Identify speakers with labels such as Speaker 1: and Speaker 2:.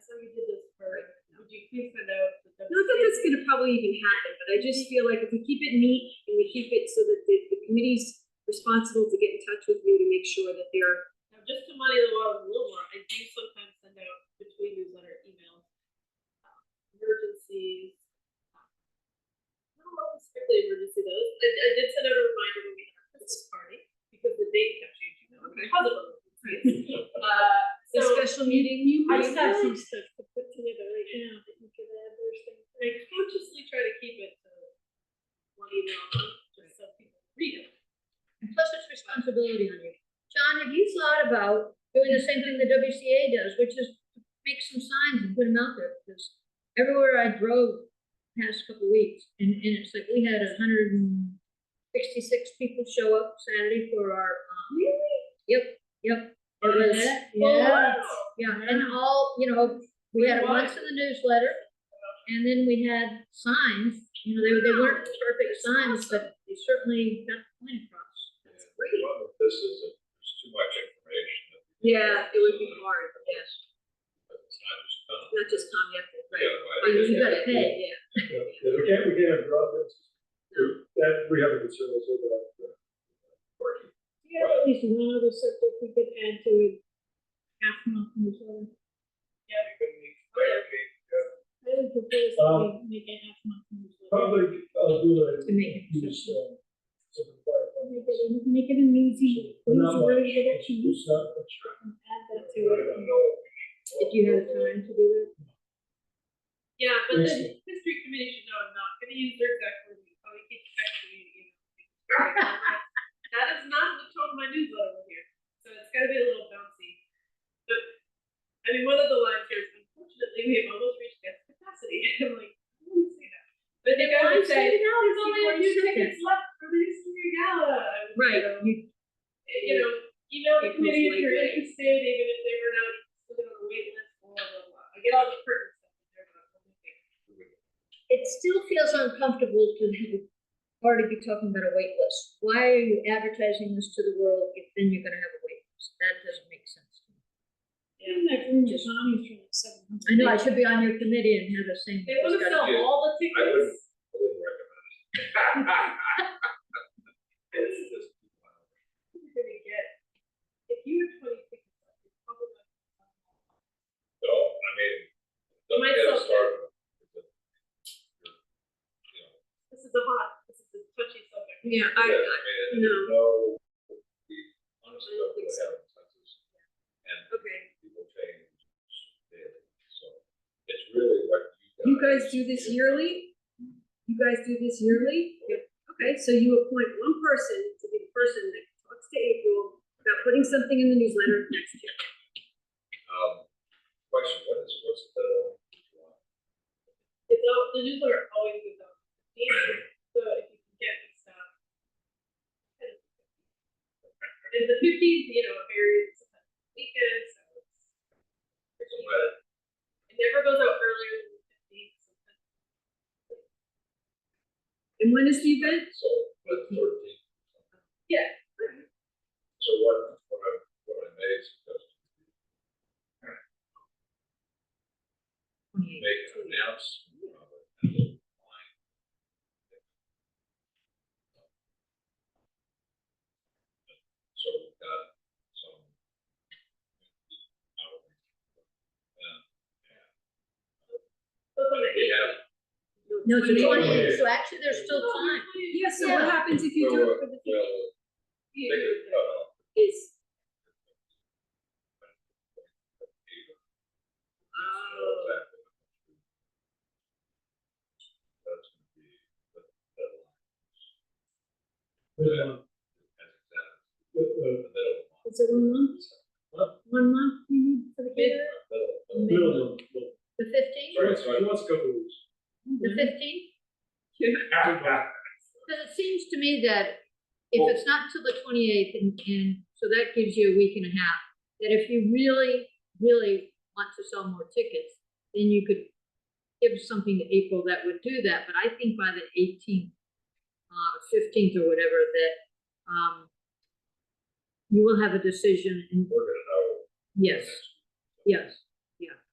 Speaker 1: so we did this for, would you please send out? the-
Speaker 2: Not that that's gonna probably even happen, but I just feel like if we keep it neat and we keep it so that the, the committee's responsible to get in touch with you to make sure that they're,
Speaker 1: Now, just to muddy the water a little more, I do sometimes send out between newsletter emails, um, emergencies. I don't know if it's strictly emergency though, I, I did send out a reminder when we had our Christmas party, because the date kept changing, though, okay, how's it going? Uh,
Speaker 2: the
Speaker 1: so.
Speaker 2: special meeting you.
Speaker 1: I just have some
Speaker 2: stuff to put together right now that you can add those things.
Speaker 1: I consciously try to keep it to one email a month, just so people read it.
Speaker 3: plus it's responsibility on you. John, have you thought about doing the same thing the WCA does, which is make some signs and put them out there? Because everywhere I drove past couple weeks, and, and it's like, we had a hundred and sixty-six people show up Saturday for our, um. Really? Yep, yep. It was-
Speaker 2: Yeah.
Speaker 3: Yeah, and all, you know, we had it once in the newsletter, and then we had signs, you know, they, they weren't perfect signs, but they certainly got the point across.
Speaker 2: great.
Speaker 4: Well, This is, there's too much information.
Speaker 2: Yeah, it would be hard, yes,
Speaker 4: But It's not just. uh,
Speaker 2: not just Tom Yepel, right?
Speaker 3: You
Speaker 4: yeah, right.
Speaker 3: gotta pay.
Speaker 2: Yeah.
Speaker 5: Yeah, we can't, we can't drop this. That, we have a concern also about.
Speaker 6: Yeah, at least one other subject we could add to it. Half month newsletter.
Speaker 4: You can make- make, uh,
Speaker 6: I would propose that
Speaker 5: Um,
Speaker 6: we make a half month newsletter.
Speaker 5: Probably, I'll do a.
Speaker 3: To me.
Speaker 5: Use, um, some clarifying.
Speaker 6: Make it, an- make it an easy, easy
Speaker 5: But not much.
Speaker 6: version of it, and
Speaker 5: It's not much.
Speaker 6: add that to
Speaker 4: I
Speaker 6: it.
Speaker 4: don't know.
Speaker 3: If you have time to do it.
Speaker 1: Yeah, but the
Speaker 5: Yes.
Speaker 1: history committee should know I'm not gonna use their exact words, you probably keep texting me, you know. That is not the tone of my newsletter here, so it's gotta be a little bouncy. But, I mean, one of the lines here is unfortunately, we have almost reached guest capacity, I'm like, I wouldn't say that. But they
Speaker 3: Why
Speaker 1: gotta
Speaker 3: say
Speaker 1: say, there's
Speaker 3: it out? It's
Speaker 1: only a
Speaker 3: already
Speaker 1: few
Speaker 3: said
Speaker 1: tickets left for the history gala. I was, um, you
Speaker 2: Right,
Speaker 1: know,
Speaker 2: you-
Speaker 1: you know, email
Speaker 2: It was
Speaker 1: the committee if
Speaker 2: like
Speaker 1: you're
Speaker 2: that.
Speaker 1: interested, even if they were not listed on the wait list, blah, blah, blah. I get all the perfect stuff. but they're not public things.
Speaker 3: It still feels uncomfortable to have a party be talking about a wait list. Why are you advertising this to the world if then you're gonna have a wait list? That doesn't make sense. to me.
Speaker 6: Even that room with Tommy's from seven hundred.
Speaker 3: I know, I should be on your committee and have the same.
Speaker 1: They want to sell
Speaker 4: Yeah.
Speaker 1: all the
Speaker 4: I wouldn't,
Speaker 1: tickets.
Speaker 4: I wouldn't recommend it. This is just too wild.
Speaker 1: You're gonna get, if you have twenty tickets, left, you're probably not gonna sell them all.
Speaker 4: No, I mean, don't
Speaker 1: Might
Speaker 4: get us
Speaker 1: sell-
Speaker 4: started. You know,
Speaker 1: This is a hot, this is a touchy subject.
Speaker 2: yeah,
Speaker 4: Yeah,
Speaker 2: I,
Speaker 4: I
Speaker 2: no.
Speaker 4: mean, there's no, we
Speaker 2: I
Speaker 4: honestly
Speaker 2: don't
Speaker 4: don't
Speaker 2: think
Speaker 4: really
Speaker 2: so.
Speaker 4: have a consensus. And
Speaker 2: okay.
Speaker 4: people change daily, so it's really what you
Speaker 2: You
Speaker 4: guys.
Speaker 2: guys do this yearly? You guys do this yearly? Okay, so you appoint one person to be the person that talks to April about putting something in the newsletter next year.
Speaker 4: Um, question, what is, what's the,
Speaker 1: It's all, the newsletter always goes out. So if you can get this stuff. And the fifteenth, you know, varies sometimes on weekends, so it's.
Speaker 4: what's the weather?
Speaker 1: It never goes out earlier than the fifteenth.
Speaker 2: And when is the event?
Speaker 4: So, but thirteen.
Speaker 1: Yeah.
Speaker 4: So what, what I, what I made is just make an announcement of it and then line. So we've got some. outreach. And, yeah.
Speaker 1: So it's on the
Speaker 4: We have,
Speaker 3: No, it's a
Speaker 4: Twenty.
Speaker 3: twenty, so actually there's still time.
Speaker 2: Oh, Yeah, so what happens if you do it for
Speaker 1: uh,
Speaker 2: the
Speaker 4: well, they could cut off
Speaker 2: is?
Speaker 1: uh,
Speaker 5: But, um, but, uh,
Speaker 6: Is it one month? One month we need for the
Speaker 3: Mid-
Speaker 6: caterer?
Speaker 5: Middle of the month.
Speaker 3: The fifteenth,
Speaker 4: Right.
Speaker 5: She wants a couple of weeks.
Speaker 3: the fifteenth? Because it seems to me that if
Speaker 4: Well-
Speaker 3: it's not till the twenty-eighth and, and, so that gives you a week and a half, that if you really, really want to sell more tickets, then you could give something to April that would do that, but I think by the eighteenth, uh, fifteenth or whatever, that, um, you will have a decision and,
Speaker 4: We're gonna know.
Speaker 3: yes, yes, yeah.